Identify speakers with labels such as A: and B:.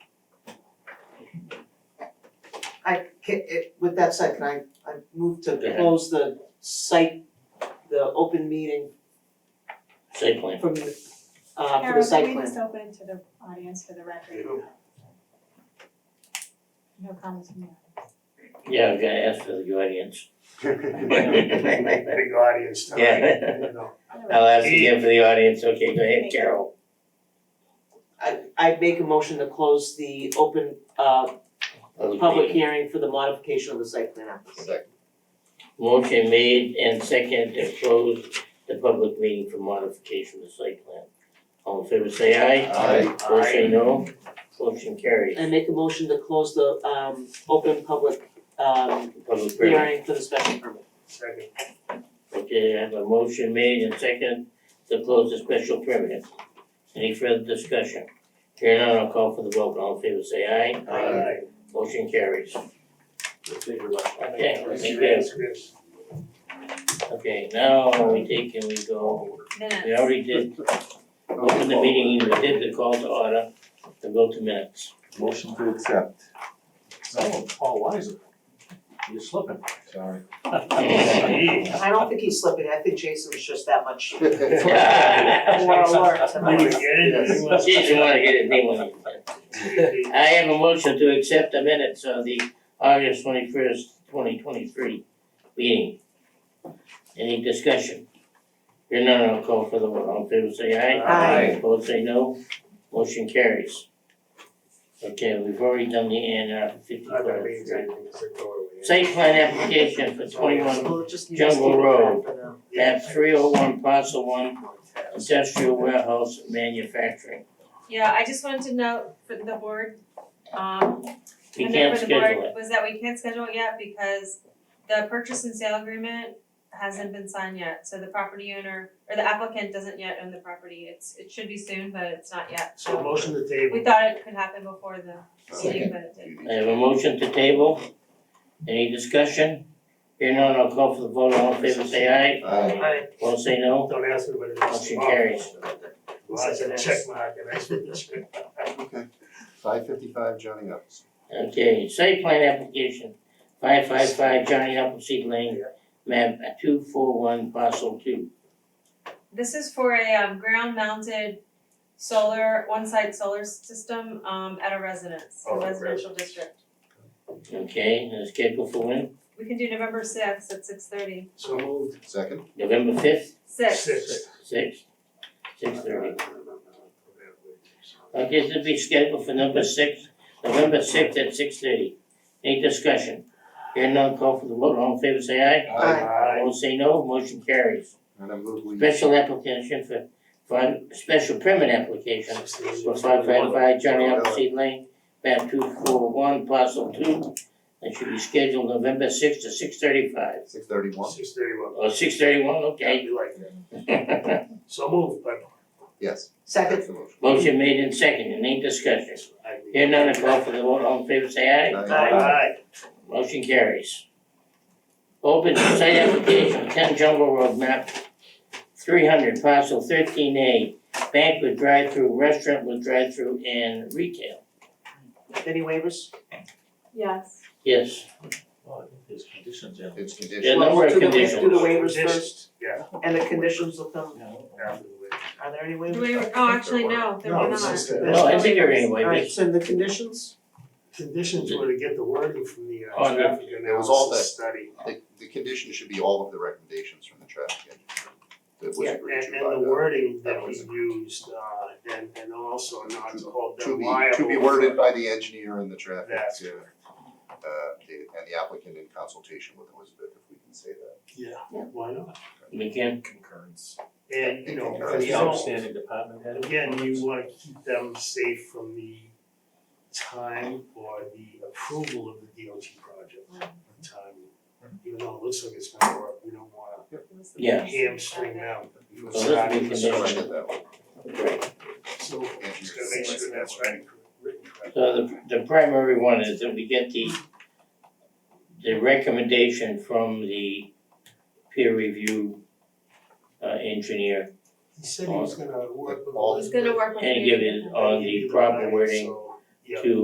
A: I can, it, with that said, can I, I move to
B: ahead.
A: close the site, the open meeting
B: site plan.
A: from the, uh, for the
C: Karen,
A: site
C: can
A: plan?
C: we just open it to the audience for the record? No comments from the audience.
B: Yeah, I was gonna ask for the audience.
D: Big audience tonight,
B: Yeah.
D: you know.
B: I'll ask again for the audience. Okay, go ahead, Carol.
A: I, I'd make a motion to close the open, uh, public hearing for the modification of the site plan application.
B: Motion made and second to close the public meeting for modification of the site plan. All in favor say aye.
E: Aye.
B: Opposed say no. Motion carries.
A: And make a motion to close the, um, open public, um,
B: Public hearing.
A: hearing for the special permit.
D: Second,
B: Okay, I have a motion made and second to close the special permit. Any further discussion? Here none, I'll call for the vote. All in favor say aye.
D: aye.
B: Motion carries. Okay,
D: Yes,
B: thank you.
D: yes, yes.
B: Okay, now we take and we go,
C: Minutes.
B: we already did, open the meeting, we did the call to order, the vote to minutes.
E: Motion to accept.
F: Oh, Paul Weiser. You're slipping.
E: Sorry.
A: I don't think he's slipping, I think Jason was just that much more
B: Yeah.
A: alert
D: You
A: tonight.
D: didn't get it, you
B: Jeez, you
D: want-
B: wanna get his name on it. I have a motion to accept the minutes of the August twenty-first, twenty twenty-three meeting. Any discussion? Here none, I'll call for the vote, all in favor say aye.
A: Aye.
B: Opposed say no, motion carries. Okay, we've already done the A and R for fifty
D: I don't
B: Court
D: mean
B: Street.
D: anything, Oh, it's a doorway.
B: Site plan application for twenty-one,
A: We'll just, you just
B: Jungle
A: keep it
B: Road.
A: for now.
B: map three oh one, parcel one, industrial warehouse manufacturing.
C: Yeah, I just wanted to note for the board, um,
B: We
C: and
B: can't
C: for the board
B: schedule it.
C: was that we can't schedule it yet because the purchase and sale agreement hasn't been signed yet, so the property owner or the applicant doesn't yet own the property. It's, it should be soon, but it's not yet.
D: So motion to
C: We
D: table,
C: thought it could happen before the meeting, but it didn't.
B: I have a motion to table. Any discussion? Here none, I'll call for the vote, all in favor say aye,
E: Aye.
A: Aye.
B: all say no,
D: don't ask me what it is.
B: motion carries.
D: Lots of check mark, and I said the check.
E: Okay. Five fifty-five Johnny Ups.
B: Okay, site plan application, five five five Johnny Appleseed Lane, map two four one, parcel two.
C: This is for a um ground mounted solar, one site solar system um at a residence,
D: Oh,
C: a
D: okay.
C: residential district.
B: Okay, and it's scheduled for when?
C: We can do November sixth at six thirty,
D: So moved.
E: Second.
B: November fifth,
C: six.
D: Six.
B: six, six thirty.
D: Okay.
B: Okay, this will be scheduled for number six, November sixth at six thirty. Any discussion? Hearing none, call for the vote, all in favor say aye.
A: Aye.
D: Aye.
B: All say no, motion carries.
E: And I move we.
B: Special application for, for, special permit application for five five five Johnny Appleseed Lane, map two four one, parcel two. That should be scheduled November sixth to six thirty-five,
E: Six thirty-one.
D: Six thirty-one.
B: or six thirty-one, okay.
D: You like that. So moved, but.
E: Yes.
A: Second,
E: That's the motion.
B: Motion made and seconded, any discussion?
D: I mean-
B: Hearing none, I call for the vote, all in favor say aye.
D: Aye.
B: Motion carries. Open site application, ten Jungle Road map, three hundred parcel thirteen A, bank with drive-through, restaurant with drive-through and retail.
A: any waivers?
C: Yes.
B: Yes,
F: Oh, I think there's conditions in.
E: It's
B: Yeah,
E: conditional.
B: no more
A: Well, do the-
B: conditions.
A: Do the waivers
D: Conditions.
A: first,
D: Yeah.
A: and the conditions will come,
F: Yeah.
D: after the waiver.
A: are there any waivers?
C: Do we, oh, actually, no, there were
D: No,
C: not.
D: it's just that
B: no, I think there are any
A: Alright,
B: waivers.
A: so the conditions,
D: conditions were to get the wording from the
B: Oh,
D: uh
B: no.
D: traffic
E: It was all
D: analysis study.
E: The, the condition should be all of the recommendations from the traffic engineer. That was
A: Yeah,
E: agreed
D: And
E: to
D: and
E: by
D: the
E: the,
D: wording that
E: that
D: was
E: was-
D: used, uh and and also not to hold
E: to
D: them
E: be,
D: liable.
E: to be worded by the engineer and the traffic,
D: That's
E: uh, uh, the- and the applicant in consultation with Elizabeth, if we can say that.
D: Yeah, why not?
B: We can,
F: Concurrence.
D: And you know,
E: That's
D: you
F: The
D: don't-
F: outstanding department head.
D: again, you wanna keep them safe from the time or the approval of the DOT project, the time. Even though it looks like it's gonna work, we don't wanna
C: It was the-
D: hamstring them. from
B: So this
D: starting
B: we
D: to
B: can
D: start.
B: condition.
E: Strike it that way.
D: So just gotta make sure that's right, written correctly.
B: so the, the primary one is that we get the the recommendation from the peer review uh engineer
D: He said he was gonna work with.
E: All-
C: He's gonna work with
B: and
C: you.
B: give it on the proper wording
D: So, yeah.
B: to